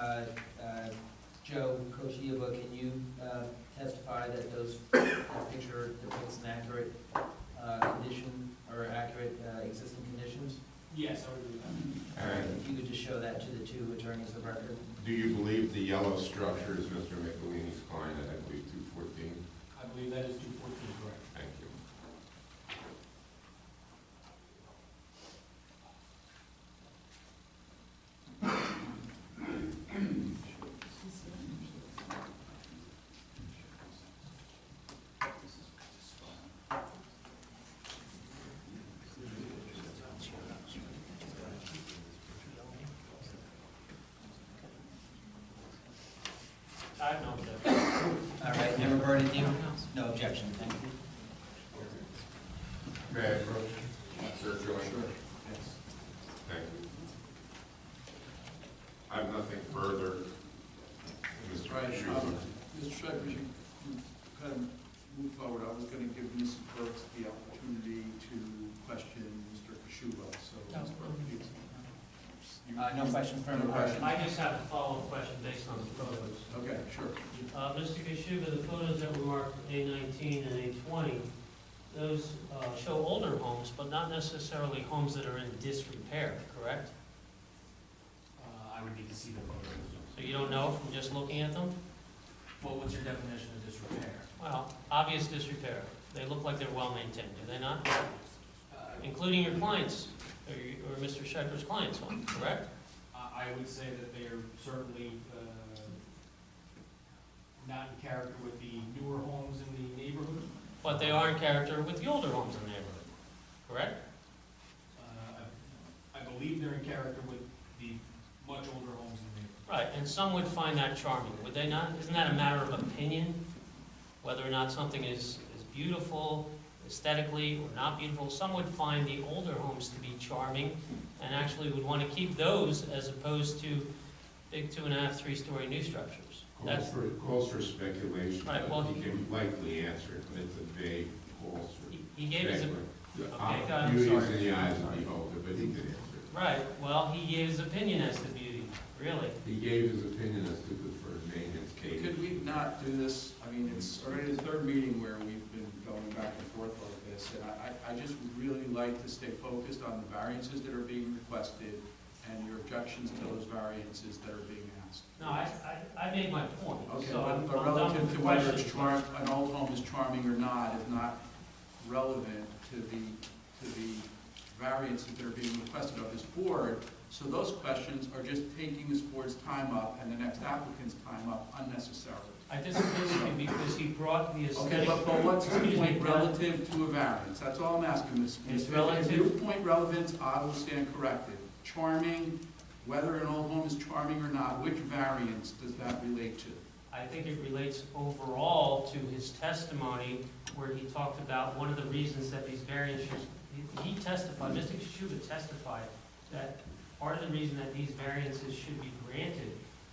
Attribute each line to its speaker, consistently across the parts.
Speaker 1: Uh, uh, uh,
Speaker 2: two attorneys of record.
Speaker 3: Do you believe the yellow structure is Mr. McElhaney's client at, I believe, 214?
Speaker 4: I believe that is two fourteen, correct.
Speaker 3: Thank you.
Speaker 4: I have no objection.
Speaker 1: All right, never burn it, you? No objection, thank you.
Speaker 3: May I approach? Sir Joyner? Thank you. I have nothing further. Mr.
Speaker 5: Right,
Speaker 3: Schuster?
Speaker 5: um, Mr. Schreiber, you you kind of move forward, I was gonna give Mrs. Burks the opportunity to question Mr. Kishuba, so. Ms. Burke, please. You-
Speaker 1: Uh, no questions, further questions?
Speaker 4: I just have a follow-up question based on the photos.
Speaker 5: Okay, sure.
Speaker 4: Uh, Mr. Kishuba, the photos that were marked A nineteen and A twenty, those uh, show older homes, but not necessarily homes that are in disrepair, correct?
Speaker 6: Uh, I would need to see the photos.
Speaker 4: So you don't know from just looking at them?
Speaker 6: Well, what's your definition of disrepair?
Speaker 4: Well, obvious disrepair. They look like they're well-maintained, do they not?
Speaker 6: Uh,
Speaker 4: Including your clients, or your- or Mr. Schecter's clients' home, correct?
Speaker 6: I, I would say that they are certainly, uh, not in character with the newer homes in the neighborhood.
Speaker 4: But they are in character with the older homes in the neighborhood, correct?
Speaker 6: Uh, I I believe they're in character with the much older homes in the neighborhood.
Speaker 4: Right, and some would find that charming, would they not? Isn't that a matter of opinion? Whether or not something is, is beautiful aesthetically or not beautiful? Some would find the older homes to be charming and actually would want to keep those as opposed to big two and a half, three-story new structures.
Speaker 3: Calls
Speaker 4: That's,
Speaker 3: for, calls for speculation,
Speaker 4: Right,
Speaker 3: but
Speaker 4: well-
Speaker 3: he can likely answer it, but it's a vague calls for.
Speaker 4: he- he gave us a Okay, God,
Speaker 3: Uh,
Speaker 4: I'm
Speaker 3: Beauty is
Speaker 4: sorry.
Speaker 3: in the eyes of the beholder, but he could answer it.
Speaker 4: Right, well, he gave his opinion as to beauty, really.
Speaker 3: He gave his opinion as to the first maintenance case.
Speaker 5: Could we not do this, I mean, it's already the third meeting where we've been going back and forth like this, and I, I I just would really like to stay focused on the variances that are being requested and your objections to those variances that are being asked.
Speaker 4: No, I, I, I made my point,
Speaker 5: Okay,
Speaker 4: so I'm
Speaker 5: but
Speaker 4: I'm done
Speaker 5: but
Speaker 4: with
Speaker 5: relative
Speaker 4: the
Speaker 5: to whether
Speaker 4: question.
Speaker 5: it's charm, an old home is charming or not is not relevant to the, to the variances that are being requested of this board. So those questions are just taking this board's time up and the next applicant's time up unnecessarily.
Speaker 4: I disagree with you because he brought the
Speaker 5: Okay,
Speaker 4: aesthetic.
Speaker 5: but, but what's the
Speaker 4: Excuse me,
Speaker 5: point
Speaker 4: Brad.
Speaker 5: relative to a variance? That's all I'm asking, Ms.
Speaker 4: It's
Speaker 5: Smith. If you
Speaker 4: relative-
Speaker 5: point relevance, I will stand corrected. Charming, whether an old home is charming or not, which variance does that relate to?
Speaker 4: I think it relates overall to his testimony where he talked about one of the reasons that these variances, he testified, Mr. Kishuba testified that part of the reason that these variances should be granted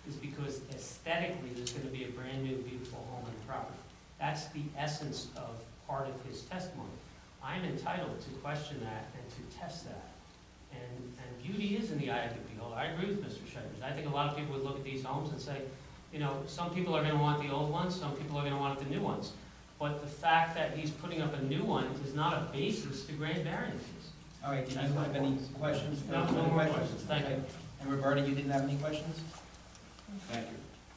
Speaker 4: is because aesthetically, there's gonna be a brand-new beautiful home and property. That's the essence of part of his testimony. I'm entitled to question that and to test that. And, and beauty is in the eye of the beholder. I agree with Mr. Shivers. I think a lot of people would look at these homes and say, you know, some people are gonna want the old ones, some people are gonna want the new ones. But the fact that he's putting up a new one is not a basis to grant variances.
Speaker 1: All right, did you have any questions?
Speaker 4: No, no more questions. Thank you.
Speaker 1: Okay. And Roberta, you didn't have any questions?
Speaker 5: Thank you.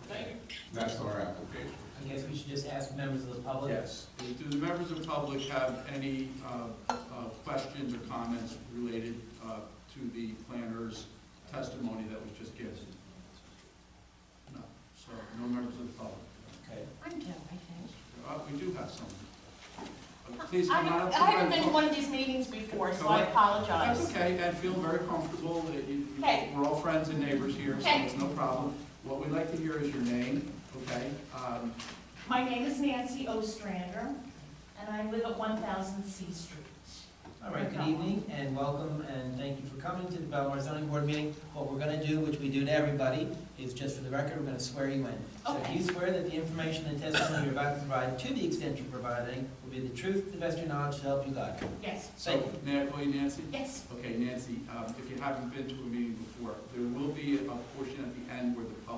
Speaker 4: Thank you.
Speaker 3: That's our application.
Speaker 1: I guess we should just ask members of the public.
Speaker 5: Yes. Do the members of the public have any uh, uh, questions or comments related uh, to the planner's testimony that was just given? No, so no members of the public.
Speaker 1: Okay.
Speaker 7: I'm done, I think.
Speaker 5: Uh, We do have some. Uh, Please come
Speaker 7: I-
Speaker 5: on up. to
Speaker 7: I haven't been
Speaker 5: the
Speaker 7: to one of these meetings before, so
Speaker 5: Go
Speaker 7: I
Speaker 5: ahead. That's
Speaker 7: apologize.
Speaker 5: okay, and feel very comfortable. that you- you-
Speaker 7: Okay.
Speaker 5: We're all friends and neighbors here, so
Speaker 7: Okay.
Speaker 5: it's no problem. What we'd like to hear is your name, okay? Um,
Speaker 7: My name is Nancy Ostrander, and I live at 1000 C Street.
Speaker 1: All right, good
Speaker 7: Okay.
Speaker 1: evening and welcome and thank you for coming to the Belmar zoning board meeting. What we're gonna do, which we do to everybody, is just for the record, we're gonna swear you in. So if
Speaker 7: Okay.
Speaker 1: you swear that the information and testimony you're about to provide, to the extent you're providing, will be the truth, the best of your knowledge, to help you God.
Speaker 7: Yes,
Speaker 1: Thank you.
Speaker 5: So, may I call you Nancy?
Speaker 7: yes,
Speaker 5: Okay, Nancy, um, if you haven't been to a meeting before, there will be a portion at the end where the public